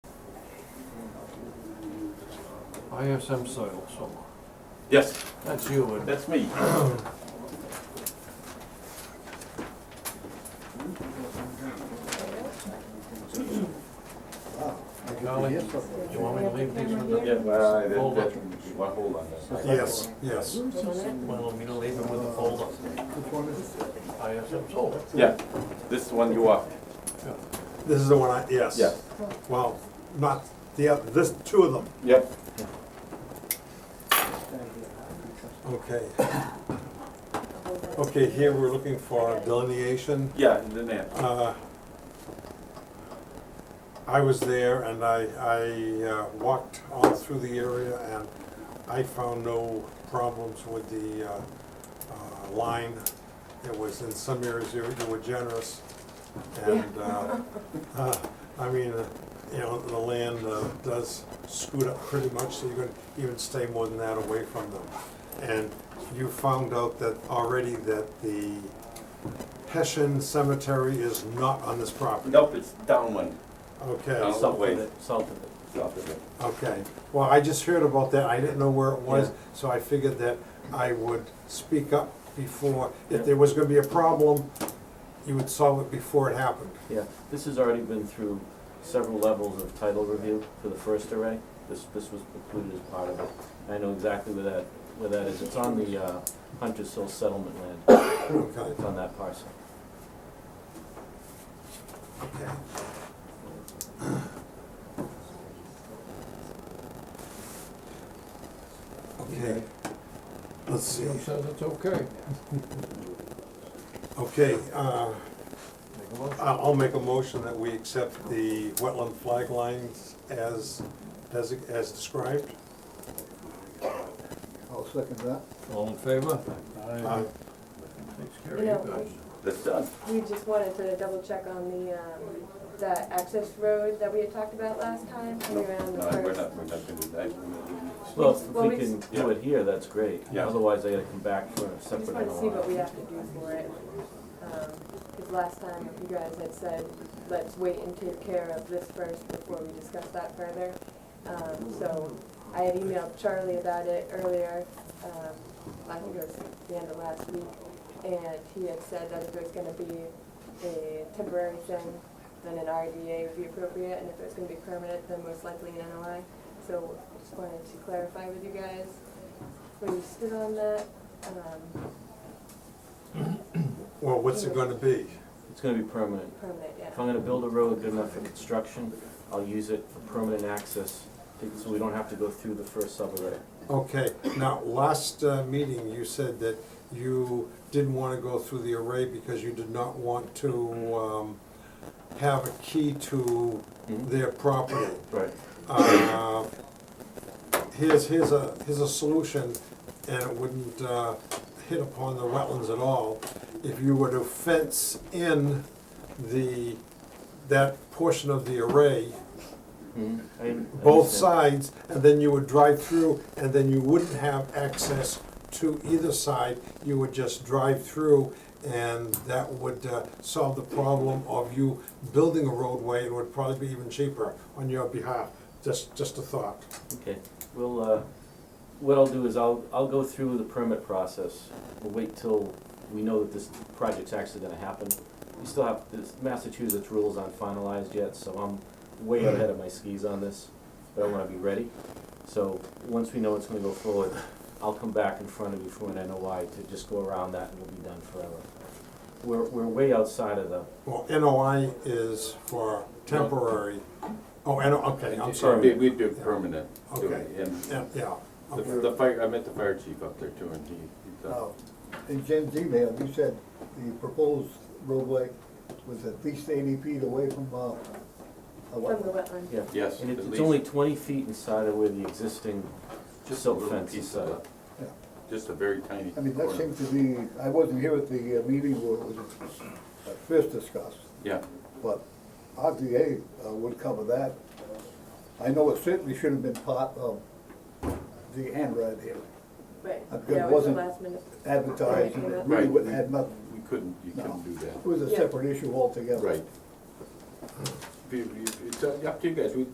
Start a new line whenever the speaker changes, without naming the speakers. ISM soil somewhere.
Yes,
That's you, and
that's me.
Golly. you want me to leave these with the,
Yeah, well, I- that-
Hold
that-
on.
well, hold on. then.
Yes, yes.
well, me to leave them with the folder, ISM soil.
Yeah, this one you are,
This is the one I, yes.
Yeah.
Well, not the, oth- this, two of them,
yep.
okay. Okay, here we're looking for delineation.
Yeah, in the net.
Uh, I was there and I, I uh, walked all through the area and I found no problems with the uh, uh, line. It was in some areas you you were generous and, uh, uh, I mean, uh, you know, the land uh, does scoot up pretty much, so you're gonna even stay more than that away from them. And you found out that already that the Hessian Cemetery is not on this property.
Nope, it's downwind,
Okay,
No. Subway.
South of it.
south of it.
okay. Well, I just heard about that, I didn't know where it was, so I figured that I would speak up before,
Yeah.
if there was gonna be a problem, you would solve it before it happened.
Yeah, this has already been through several levels of title review for the first array. This, this was included as part of it. I know exactly where that, where that is. It's on the uh, Hunter's Hill settlement land.
Okay,
It's on that parcel.
okay. Okay. Let's see,
Jim says it's okay,
okay, uh,
make a motion.
I'll I'll make a motion that we accept the wetland flag lines as, as, as described.
I'll second that.
All in favor?
Uh,
Takes care of
You know,
you guys.
That's done.
We just wanted to double check on the, um, that access road that we had talked about last time,
No,
coming around the
no, we're
first.
not, we're not gonna do that.
Well, if
well,
we
we
can
just-
do it here, that's great.
Yeah.
Otherwise, I gotta come back for a
We just
separate
wanted to see what we
NOI.
have to do for it. Because last time, you guys had said, let's wait and take care of this first before we discuss that further. Um, So I had emailed Charlie about it earlier, um, I think it was the end of last week. And he had said that if it was gonna be a temporary thing, then an RDA would be appropriate. And if it was gonna be permanent, then most likely an NOI. So just wanted to clarify with you guys where you stood on that. Um,
Well, what's it gonna be?
It's gonna be permanent.
Permanent, yeah.
If I'm gonna build a road good enough for construction, I'll use it for permanent access, so we don't have to go through the first subarray.
Okay, now, last uh, meeting, you said that you didn't wanna go through the array because you did not want to, um, have a key to
Mhm.
their property.
Right.
Uh, Here's, here's a, here's a solution, and it wouldn't, uh, hit upon the wetlands at all. If you were to fence in the, that portion of the array,
Mhm. I- I
both
understand.
sides, and then you would drive through, and then you wouldn't have access to either side. You would just drive through, and that would uh, solve the problem of you building a roadway. It would probably be even cheaper on your behalf. Just, just a thought.
Okay, well, uh, what I'll do is I'll, I'll go through the permit process. We'll wait till we know that this project's actually gonna happen. We still have, this Massachusetts rules aren't finalized yet, so I'm way ahead of my skis on this, but I wanna be ready. So, once we know it's gonna go forward, I'll come back in front of you for an NOI to just go around that and we'll be done forever. We're, we're way outside of the,
Well, NOI is for temporary. Oh, NO, okay, I'm
We,
sorry.
we do permanent. do it.
Okay.
And
Yeah, yeah,
the,
okay.
the fire, I met the fire chief up there too, and he, he
Now,
thought,
Uh, in Jim's email, you said the proposed roadway was at least eighty feet away from, uh, a
From the
wetland.
wetland.
yeah.
yes,
And
at
it's,
least.
it's only twenty feet inside of where the existing
just a
silt
little
fence is
piece
set
of
up.
it. Just a very tiny.
I mean, that
corner.
seemed to be, I wasn't here at the uh, meeting where it was at first discussed,
Yeah,
but RDA uh, would cover that. I know it certainly should have been part of the Anrad here,
Right,
I've got-
yeah, it was the
wasn't-
last minute.
advertised, and it really
Right.
wouldn't have nothing.
we couldn't, you couldn't do that.
It was a
Yeah.
separate issue altogether.
Right. Be- be- It's up to you guys, we,